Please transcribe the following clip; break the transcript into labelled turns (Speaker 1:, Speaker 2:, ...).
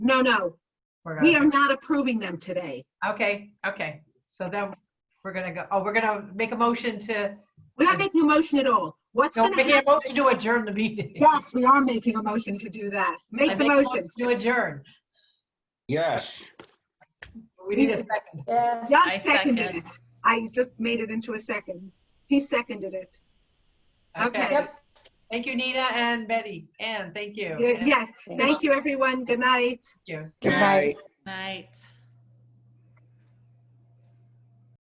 Speaker 1: No, no,
Speaker 2: We're
Speaker 1: we
Speaker 2: gonna-
Speaker 1: are not approving them today.
Speaker 2: Okay, okay. So then we're gonna go, oh, we're gonna make a motion to,
Speaker 1: We're not making a motion at all. What's
Speaker 2: no,
Speaker 1: going to
Speaker 2: making a
Speaker 1: happen?
Speaker 2: motion to adjourn the meeting.
Speaker 1: Yes, we are making a motion to do that.
Speaker 2: I
Speaker 1: Make the
Speaker 2: a
Speaker 1: motion.
Speaker 2: To adjourn.
Speaker 3: Yes.
Speaker 2: We need a second.
Speaker 4: Yes.
Speaker 1: Doug
Speaker 5: I
Speaker 1: seconded
Speaker 5: second.
Speaker 1: it. I just made it into a second. He seconded it.
Speaker 2: Okay.
Speaker 4: Yep.
Speaker 2: Thank you, Nina and Betty. Ann, thank you.
Speaker 1: Ye- Yes,
Speaker 6: Thank
Speaker 1: thank you, everyone. Good night.
Speaker 2: Thank you.
Speaker 6: Good night.
Speaker 5: Night.